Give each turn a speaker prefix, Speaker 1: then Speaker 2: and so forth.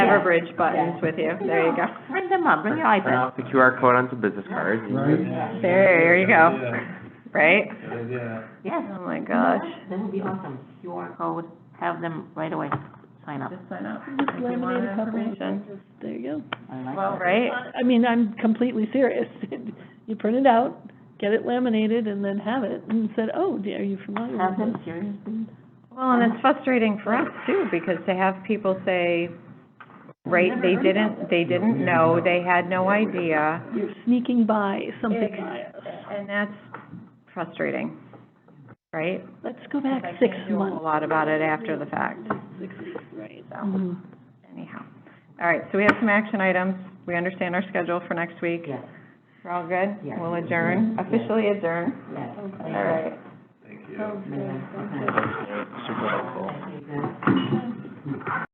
Speaker 1: Riverbridge buttons with you. There you go.
Speaker 2: Bring them up, bring your
Speaker 3: Print
Speaker 2: iPad.
Speaker 3: out the QR code on some business cards.
Speaker 4: Right?
Speaker 1: There you go. Right?
Speaker 4: Yeah.
Speaker 2: Yes.
Speaker 1: Oh, my gosh.
Speaker 2: That would be awesome. QR code, have them right away, sign up.
Speaker 1: sign up. If you want information.
Speaker 5: There you
Speaker 2: I like
Speaker 5: go.
Speaker 2: that.
Speaker 1: Right?
Speaker 5: I I mean, I'm completely serious. You print it out, get it laminated, and then have it, and said, oh, d- are you familiar
Speaker 2: Have
Speaker 5: with
Speaker 2: them
Speaker 5: this?
Speaker 2: seriously.
Speaker 1: Well, and it's frustrating for us too, because to have people say, right, they didn't, they didn't know, they had no idea.
Speaker 5: You're sneaking by something by us.
Speaker 1: And that's frustrating, right?
Speaker 5: Let's go back
Speaker 1: I
Speaker 5: six
Speaker 1: can't do A
Speaker 5: months,
Speaker 1: lot about it after the fact,
Speaker 5: six weeks, right?
Speaker 1: so
Speaker 5: Mhm.
Speaker 1: anyhow. All right, so we have some action items. We understand our schedule for next week.
Speaker 2: Yes,
Speaker 1: We're all good?
Speaker 2: Yes.
Speaker 1: We'll adjourn,
Speaker 2: Yes.
Speaker 1: officially adjourn.
Speaker 2: yes. Thank
Speaker 1: All
Speaker 2: you.
Speaker 1: right.
Speaker 4: Thank you.
Speaker 2: Yeah, okay.
Speaker 3: Super helpful.
Speaker 2: Thank you.